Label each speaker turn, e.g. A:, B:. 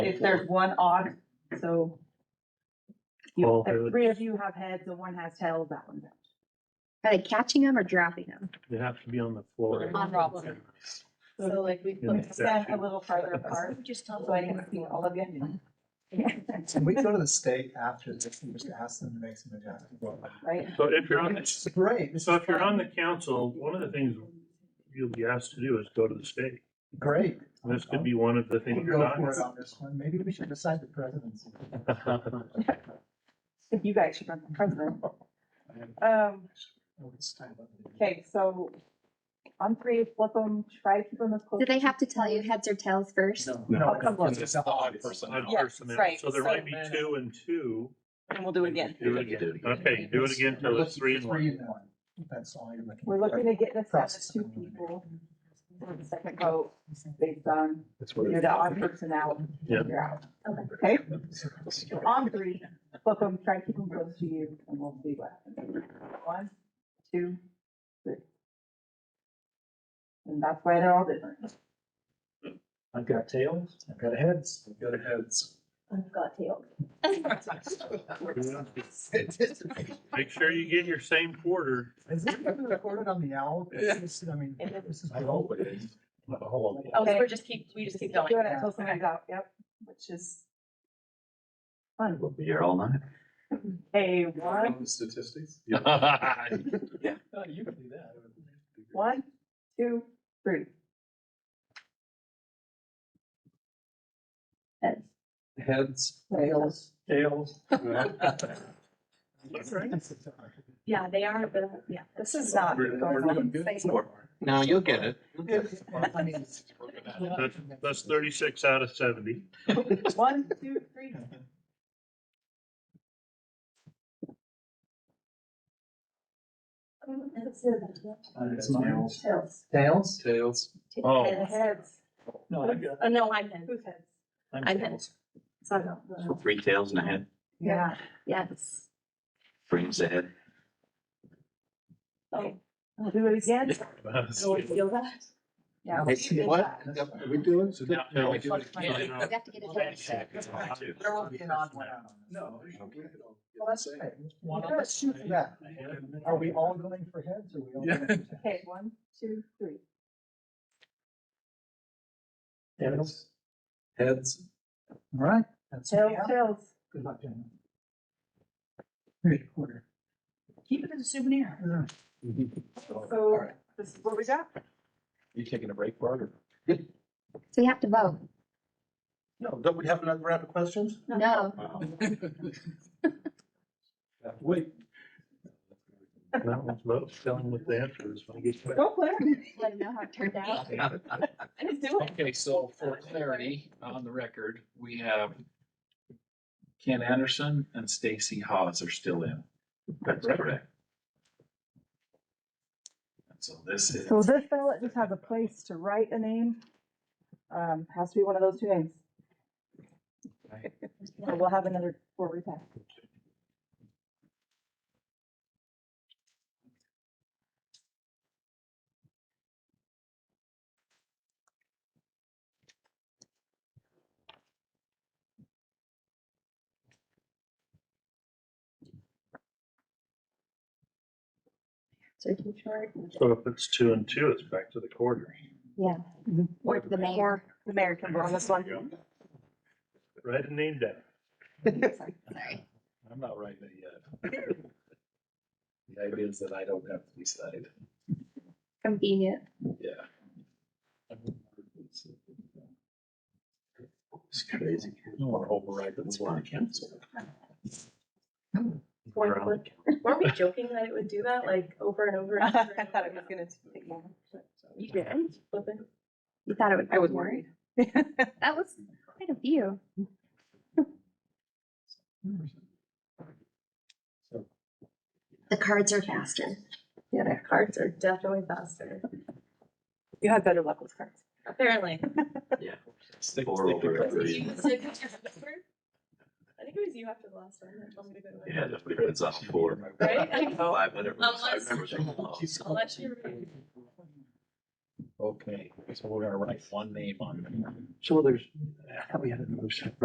A: if there's one odd, so. You,
B: Well, I
A: if
B: would-
A: three of you have heads and one has tails, that one's out.
C: Are they catching them or dropping them?
B: They have to be on the floor.
C: On
D: Robin.
A: So like we
B: In the
A: put them a
B: statute.
A: little farther apart,
C: Just
A: so I can see all of you,
E: Can we go to the state after this and just ask them to make some adjustments?
A: right?
B: So if you're on,
E: It's great. This
B: so
E: is
B: if you're on
E: fun.
B: the council, one of the things you'll be asked to do is go to the state.
E: Great.
B: And This could be one of the
E: We'll
B: things. you're
E: go
B: not-
E: for it on this one. Maybe we should decide the presidency.
A: If you guys should run for president. Um, okay, so on three, flip them, try to keep them as close.
C: Do they
A: as
C: have to
A: you
C: tell you
A: can.
C: heads or tails first?
E: No,
A: come
E: no,
A: on.
E: it's not obvious.
B: Odd
A: Yeah,
B: personnel.
A: right.
B: So there
A: So-
B: might be two and two.
A: And we'll do it again.
B: Do it again. Okay, do it again till it's three and one.
E: and one. That's all you're looking.
A: We're looking to get this down
E: Process
A: to two
E: of elimination.
A: people. for the Second vote, based on,
B: That's
A: you know, the odd personality,
B: Yeah.
A: you're out.
C: Okay.
A: Okay, on three, flip them, try to keep them close to you, and we'll see what happens. One, two, three. And that's why they're all different.
E: I've got tails, I've got heads. I've got heads.
C: I've got tails.
B: Make sure you get your same quarter.
E: Is this gonna be recorded on the owl? This is- I mean, this is. I hope it is.
D: Oh, so
A: Okay.
D: we're just keep, we just keep going.
A: Doing it until somebody's out, yep, which is fun.
F: We'll be here all night.
A: A one,
E: Statistics? No, Oh, you can do that.
A: one, two, three.
E: Heads.
A: Tails.
E: Tails.
D: Yeah, they are, but yeah.
A: This is not going on.
F: Now you'll get it.
B: That's, that's thirty-six out of seventy.
A: One, two, three. Tails.
E: Tails?
F: Tails.
B: Oh.
A: And heads.
E: No, I got,
D: Oh, no, I'm in.
A: Who's heads?
E: I'm
D: I'm
E: tails.
D: Sorry about
F: So
D: that.
F: three tails and a head,
A: Yeah.
D: Yes.
F: brings a head.
A: Oh, We'll do it again.
D: Do you feel that?
A: Yeah.
E: Let's see what? Are we doing? So
B: Now- now-
C: You have to get a head check.
E: There will be an odd one out. No. Well, that's okay. One
A: Yeah, let's shoot for
E: that. Are we all going for heads or are we all? going for
A: Okay, one, two, three.
E: Tails. Heads. All right. That's.
A: Tails, tails.
E: Good luck, gentlemen. Here's your quarter.
A: Keep it as a souvenir.
E: All right. Oh,
A: So this is what we got.
G: You taking a break, Bart? or-
C: So you have to vote.
G: No, don't we have another round of questions?
C: No.
G: Wait.
B: That one's about telling what the answer is. when I get back.
A: Go, Claire.
C: Let them know how it turned out.
D: I just do it.
H: Okay, so for clarity on the record, we have Ken Anderson and Stacy Hawes are still in.
F: That's correct.
H: And So this is,
A: So this ballot just has a place to write a name. Um, has to be one of those two names. So we'll have another four repack.
C: Searching chart.
B: So if it's two and two, it's back to the quarter,
C: Yeah.
A: Mm-hmm.
C: Or the mayor.
A: The mayor can vote on this one.
B: Write a name down.
C: Sorry. Sorry.
H: I'm not writing it yet. The idea is that I don't have to decide,
C: Convenient.
H: yeah.
F: It's crazy.
H: I don't want to override the law.
D: Where Weren't we joking that it would do that like over and over?
A: I
D: and over and
A: thought it
D: over?
A: was gonna take more.
D: You did? Flipping.
C: You thought it would.
A: I was worried. It
C: That was quite a few. The cards are faster.
D: Yeah, their cards are definitely faster.
A: You had better luck with cards.
D: Apparently.
F: Yeah.
H: Stick-
F: Four
H: stick to
F: over
H: it.
F: every-
D: You said- I think it was you after the last one that told me to go to it.
F: Yeah, that's what it's on for.
D: Right?
A: Oh,
F: Five, whatever. it was. I
D: Unless-
F: remember that one.
D: Unless you're.
H: Okay, so we're gonna write one name on it.
B: So there's, how we had it moved.